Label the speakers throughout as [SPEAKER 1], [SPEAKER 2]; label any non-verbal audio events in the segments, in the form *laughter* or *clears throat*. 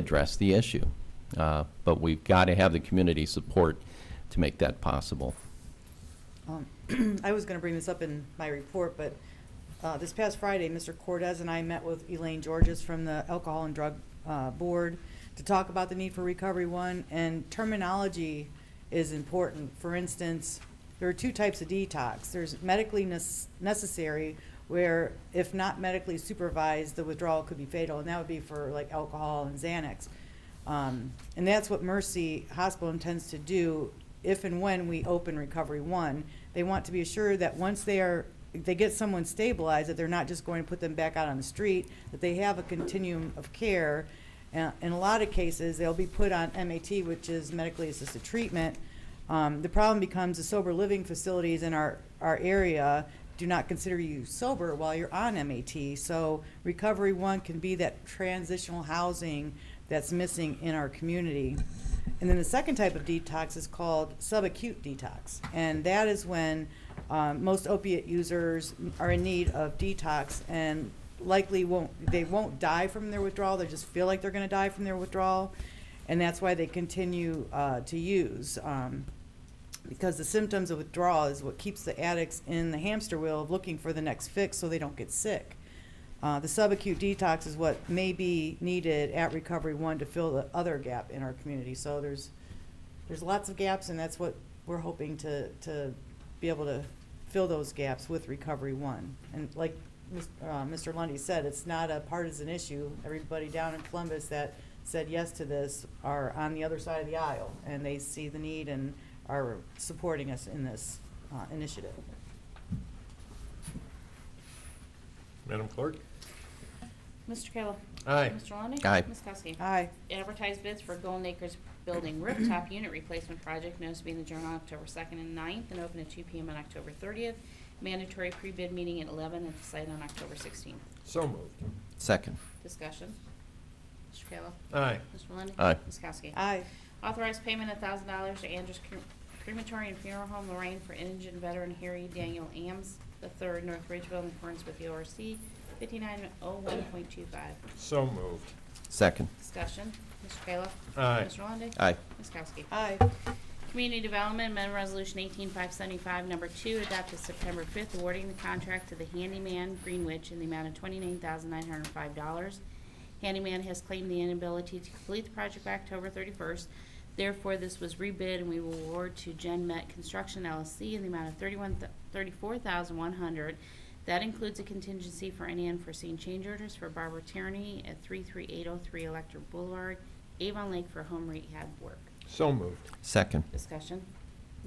[SPEAKER 1] address the issue. Uh, But we've got to have the community support to make that possible.
[SPEAKER 2] Um, *clears throat* I was going to bring this up in my report, but uh, this past Friday, Mr. Cortez and I met with Elaine Georges from the Alcohol and Drug uh, Board to talk about the need for Recovery One, and terminology is important. For instance, there are two types of detox. There's medically nes- necessary, where if not medically supervised, the withdrawal could be fatal, and that would be for like alcohol and Xanax. Um, And that's what Mercy Hospital intends to do if and when we open Recovery One. They want to be assured that once they are, they get someone stabilized, that they're not just going to put them back out on the street, that they have a continuum of care. Uh, In a lot of cases, they'll be put on MAT, which is medically assisted treatment. Um, The problem becomes the sober living facilities in our, our area do not consider you sober while you're on MAT. So Recovery One can be that transitional housing that's missing in our community. And then the second type of detox is called subacute detox. And that is when um, most opiate users are in need of detox and likely won't, they won't die from their withdrawal, they just feel like they're going to die from their withdrawal. And that's why they continue uh, to use. Um, because the symptoms of withdrawal is what keeps the addicts in the hamster wheel of looking for the next fix so they don't get sick. Uh, the subacute detox is what may be needed at Recovery One to fill the other gap in our community. So there's there's lots of gaps, and that's what we're hoping to to be able to fill those gaps with Recovery One. And like Mis- uh, Mr. Lundy said, it's not a partisan issue. Everybody down in Columbus that said yes to this are on the other side of the aisle, and they see the need and are supporting us in this uh, initiative.
[SPEAKER 3] Madam Clerk?
[SPEAKER 4] Mr. Kayla.
[SPEAKER 3] Aye.
[SPEAKER 4] Mr. Lundey.
[SPEAKER 1] Aye.
[SPEAKER 4] Ms. Kowski.
[SPEAKER 2] Aye.
[SPEAKER 4] Advertised bids for Golden Acres Building Rooftop Unit Replacement Project, notice being adjourned on October 2nd and 9th, and open at 2 PM on October 30th. Mandatory pre-bid meeting at 11 at the site on October 16th.
[SPEAKER 3] So moved.
[SPEAKER 1] Second.
[SPEAKER 4] Discussion. Mr. Kayla.
[SPEAKER 3] Aye.
[SPEAKER 4] Mr. Lundey.
[SPEAKER 1] Aye.
[SPEAKER 4] Ms. Kowski.
[SPEAKER 2] Aye.
[SPEAKER 4] Authorized payment of thousand dollars to Andrews Cre- Crematory and Funeral Home Lorraine for indigent veteran Harry Daniel Ames III, North Ridgeville, in accordance with the ORC 5901.25.
[SPEAKER 3] So moved.
[SPEAKER 1] Second.
[SPEAKER 4] Discussion, Mr. Kayla.
[SPEAKER 3] Aye.
[SPEAKER 4] Mr. Lundey.
[SPEAKER 1] Aye.
[SPEAKER 4] Ms. Kowski.
[SPEAKER 2] Aye.
[SPEAKER 4] Community Development Amendment Resolution 18575, number two, adopted September 5th, awarding the contract to the handyman Greenwich in the amount of $29,905. Handyman has claimed the inability to complete the project by October 31st. Therefore, this was rebid and we will award to Gen Met Construction LLC in the amount of 31 th- $34,100. That includes a contingency for any unforeseen change orders for Barbara Tierney at 33803 Electric Boulevard, Avon Lake for home rehab work.
[SPEAKER 3] So moved.
[SPEAKER 1] Second.
[SPEAKER 4] Discussion.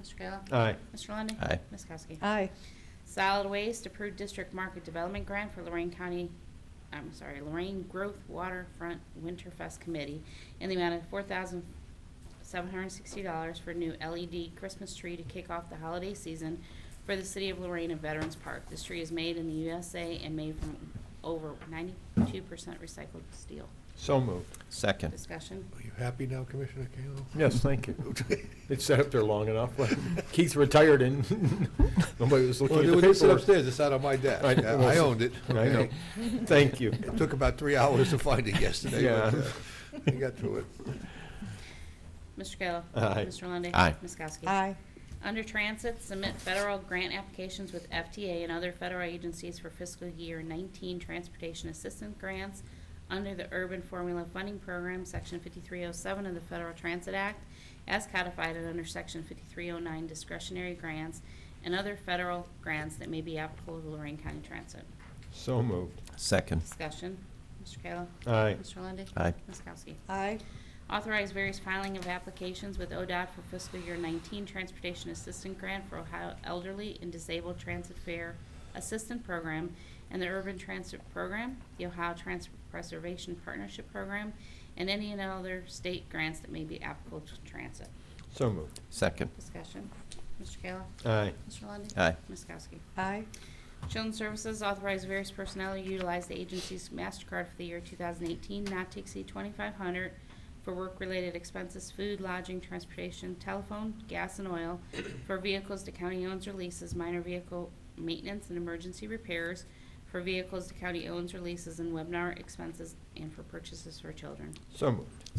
[SPEAKER 4] Mr. Kayla?
[SPEAKER 3] Aye.
[SPEAKER 4] Mr. Lundy.
[SPEAKER 1] Aye.
[SPEAKER 4] Ms. Kowski?
[SPEAKER 2] Aye.
[SPEAKER 4] Solid Waste approved district market development grant for Lorraine County, I'm sorry, Lorraine Growth Waterfront Winterfest Committee in the amount of four thousand seven hundred and sixty dollars for a new LED Christmas tree to kick off the holiday season for the city of Lorraine and Veterans Park. This tree is made in the USA and made from over ninety-two percent recycled steel.
[SPEAKER 3] So moved.
[SPEAKER 1] Second.
[SPEAKER 4] Discussion.
[SPEAKER 5] Are you happy now, Commissioner Kayla? *laughs*
[SPEAKER 3] Yes, thank you. *laughs* It sat up there long enough. *laughs* Keith retired and *laughs* nobody was looking
[SPEAKER 5] Well,
[SPEAKER 3] at
[SPEAKER 5] it
[SPEAKER 3] the
[SPEAKER 5] was just
[SPEAKER 3] paperwork.
[SPEAKER 5] upstairs, it's out on my desk.
[SPEAKER 3] I know.
[SPEAKER 5] I owned it.
[SPEAKER 3] I know.
[SPEAKER 5] okay?
[SPEAKER 3] Thank you.
[SPEAKER 5] It took about three *laughs* hours to find it yesterday, but
[SPEAKER 3] Yeah. *laughs*
[SPEAKER 5] uh, I got through it.
[SPEAKER 4] Mr. Kayla?
[SPEAKER 3] Aye.
[SPEAKER 4] Mr. Lundey?
[SPEAKER 1] Aye.
[SPEAKER 4] Ms. Kowski?
[SPEAKER 2] Aye.
[SPEAKER 4] Under Transit, submit federal grant applications with FTA and other federal agencies for fiscal year 19 transportation assistance grants under the Urban Formula Funding Program, Section 5307 of the Federal Transit Act, as codified and under Section 5309 discretionary grants and other federal grants that may be applicable to Lorraine County Transit.
[SPEAKER 3] So moved.
[SPEAKER 1] Second.
[SPEAKER 4] Discussion. Mr. Kayla.
[SPEAKER 3] Aye.
[SPEAKER 4] Mr. Lundey.
[SPEAKER 1] Aye.
[SPEAKER 4] Ms. Kowski.
[SPEAKER 2] Aye.
[SPEAKER 4] Authorize various filing of applications with ODOT for fiscal year 19 Transportation Assistant Grant for Ohio Elderly and Disabled Transit Fair Assistant Program and the Urban Transit Program, the Ohio Transit Preservation Partnership Program, and any and other state grants that may be applicable to transit.
[SPEAKER 3] So moved.
[SPEAKER 1] Second.
[SPEAKER 4] Discussion. Mr. Kayla?
[SPEAKER 3] Aye.
[SPEAKER 4] Mr. Lundey?
[SPEAKER 1] Aye.
[SPEAKER 4] Ms. Kowski?
[SPEAKER 2] Aye.
[SPEAKER 4] Children's Services authorized various personnel to utilize the agency's MasterCard for the year 2018, not to exceed 2,500 for work-related expenses, food, lodging, transportation, telephone, gas, and oil, for vehicles the county owns or leases, minor vehicle maintenance and emergency repairs, for vehicles the county owns or leases and webinar expenses, and for purchases for children.
[SPEAKER 6] So moved.